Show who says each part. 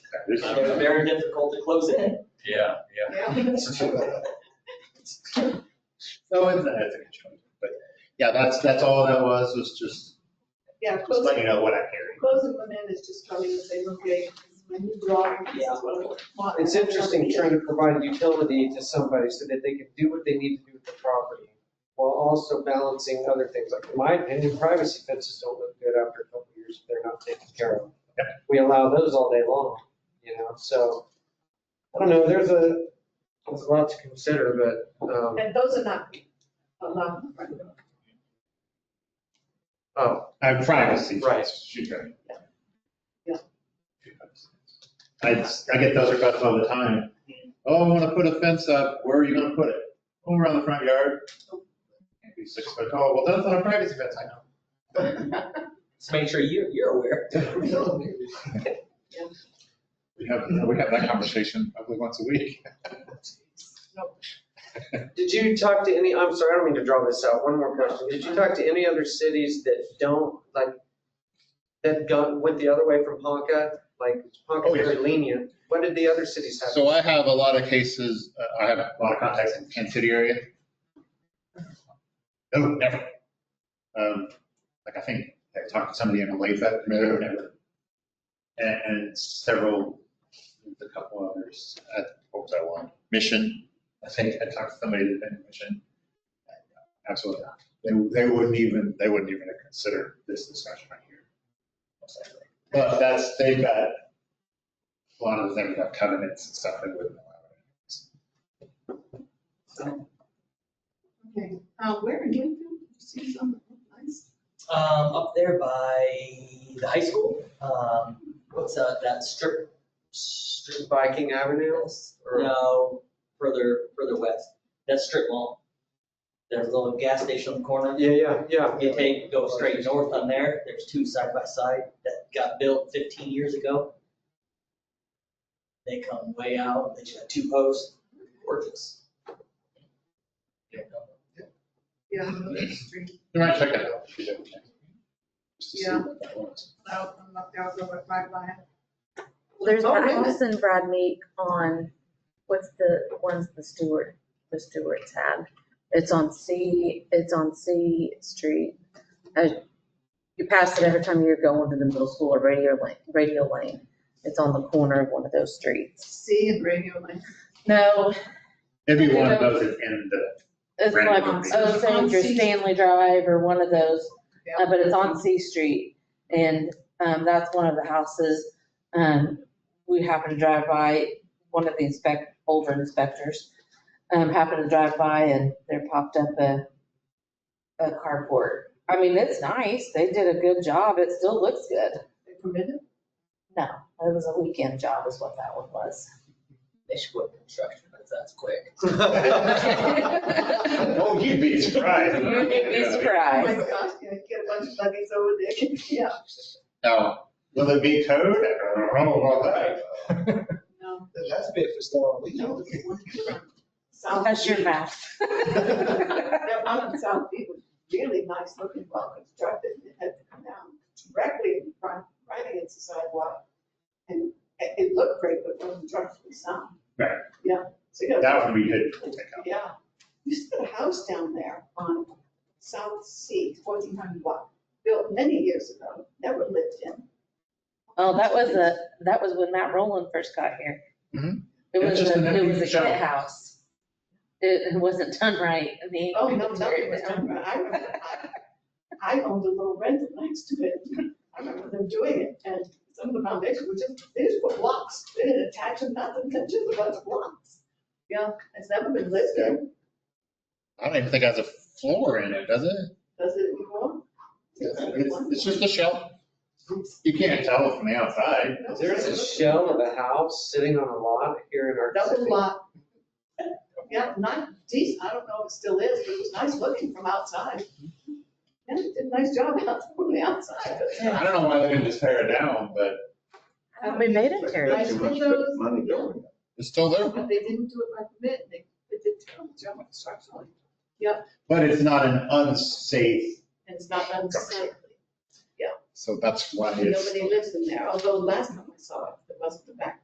Speaker 1: This
Speaker 2: It was
Speaker 1: is-
Speaker 2: very difficult to close it.
Speaker 3: Yeah,
Speaker 4: No,
Speaker 3: yeah.
Speaker 4: it's, I think it's fine. but, yeah, that's, that's all that was, was just
Speaker 5: Yeah,
Speaker 4: just letting
Speaker 5: closing,
Speaker 4: you know what I'm hearing.
Speaker 5: closing one end is just coming and saying, okay, this is my new blog. this is what I want.
Speaker 6: It's interesting trying to provide utility to somebody so that they can do what they need to do with the property while also balancing other things. Like in my opinion, privacy fences don't look good after a couple of years if they're not taken care of. We allow those all day long, you know, so, I don't know, there's a, there's a lot to consider, but, um,
Speaker 5: And those are not, are not,
Speaker 6: oh,
Speaker 4: I'm privacy.
Speaker 6: Right.
Speaker 4: She's right.
Speaker 5: Yeah.
Speaker 4: I, just- I get those requests all the time. Oh, I want to put a fence up. Where are you going to put it? Oh, around the front yard. Can't be six foot tall. Well, that's not a privacy fence, I know.
Speaker 2: Just make sure you, you're aware.
Speaker 1: We have, we have that conversation probably once a week.
Speaker 6: did you talk to any, I'm sorry, I don't mean to draw this out, one more question. Did you talk to any other cities that don't, like, that go, went the other way from Ponca? Like, Ponca's
Speaker 4: Oh, yes.
Speaker 6: very lenient. What did the other cities have?
Speaker 1: So I have a lot of cases, uh, I have a lot of contacts in Kansas City area. No, never. Um, Like I think I talked to somebody in Olathe, no, never. And, and several, a couple others, uh, what was that one? Mission, I think I talked to somebody that had been in Mission. Absolutely not. They, they wouldn't even, they wouldn't even consider this discussion right here. Most likely. But that's, they've got a lot of them have covenants and stuff that wouldn't allow it.
Speaker 5: okay, uh, where in Winfield, you see some nice,
Speaker 2: Um, up there by the high school, um, what's that, that strip? Strip
Speaker 6: Viking Avenue? Or-
Speaker 2: No, further, further west. That strip mall. There's a little gas station on the corner.
Speaker 6: Yeah, yeah, yeah.
Speaker 2: You take, go straight north on there, there's two side by side that got built fifteen years ago. They come way out, they just got two posts, gorgeous.
Speaker 5: yeah, those street,
Speaker 1: You might check it out if you don't. Just to see
Speaker 5: Yeah.
Speaker 1: what that was.
Speaker 5: out, and knocked out over five line.
Speaker 7: There's
Speaker 5: Oh,
Speaker 7: Brad
Speaker 5: really?
Speaker 7: Moss and Brad Meek on, what's the, one's the Stewart, the Stewart tab. It's on C, it's on C Street. Uh, You pass it every time you're going to the middle school or radio lane, radio lane. It's on the corner of one of those streets.
Speaker 5: See and radio lane.
Speaker 7: No,
Speaker 4: It'd be one of those that's in the,
Speaker 7: it's
Speaker 4: Right.
Speaker 7: like, oh, Saint or Stanley Drive or one of those. Uh, but it's on C Street, and, um, that's one of the houses, um, we happened to drive by, one of the inspect, older inspectors, um, happened to drive by and there popped up a, a carport. I mean, it's nice, they did a good job, it still looks good.
Speaker 5: They permitted?
Speaker 7: No, it was a weekend job is what that one was.
Speaker 2: They should quit construction, but that's quick.
Speaker 4: oh, you'd be surprised.
Speaker 7: You'd be
Speaker 5: Oh my
Speaker 7: surprised.
Speaker 5: gosh, yeah, get a bunch of buggies over there, yeah,
Speaker 1: Now,
Speaker 4: Will it be towed? I don't know about that.
Speaker 5: no.
Speaker 8: That's a bit for Storm Lee.
Speaker 5: South
Speaker 7: That's your
Speaker 5: Beach.
Speaker 7: mouth.
Speaker 5: That one on South Beach was really nice looking, well constructed, it had to come down directly in front, right against the sidewalk. And it, it looked great, but wasn't structurally sound.
Speaker 4: Right.
Speaker 5: Yeah, so you got,
Speaker 4: That one we did pick up.
Speaker 5: yeah, you just put a house down there on South Sea, fourteen hundred block, built many years ago, never lived in.
Speaker 7: Oh, that was a, that was when Matt Rowland first got here.
Speaker 1: Mhm.
Speaker 7: It
Speaker 4: It's
Speaker 7: was,
Speaker 4: just an
Speaker 7: a- it was
Speaker 4: empty
Speaker 7: a
Speaker 4: shell.
Speaker 7: kit house. It it wasn't done right, I mean.
Speaker 5: Oh, no,
Speaker 7: it
Speaker 5: nothing
Speaker 7: tear it
Speaker 5: was
Speaker 7: down.
Speaker 5: done, right. I remember, I, I owned a little rental next to it. I remember them doing it, and some of the foundations were just, they just put blocks, they didn't attach them, nothing, they're just a bunch of blocks. Yeah, it's never been lived in,
Speaker 1: I don't even think it has a floor in it, does it?
Speaker 5: does it anymore?
Speaker 1: It's, it's just a shell. You can't tell from the outside.
Speaker 6: There's a shell of a house sitting on a lot here in our
Speaker 5: Double
Speaker 6: city.
Speaker 5: block. Yeah, not decent, I don't know if it still is, but it was nice looking from outside. And it did a nice job out, from the outside.
Speaker 1: I don't know why they didn't just tear it down, but
Speaker 7: We made it tear it
Speaker 5: Nice windows.
Speaker 8: Money going.
Speaker 1: it's still there.
Speaker 5: But they didn't do it by permit, they, they did terrible job structurally.
Speaker 4: But it's not an unsafe,
Speaker 5: And it's not unsightly,
Speaker 1: So that's why it's.
Speaker 5: nobody lives in there, although last time I saw it, it wasn't the back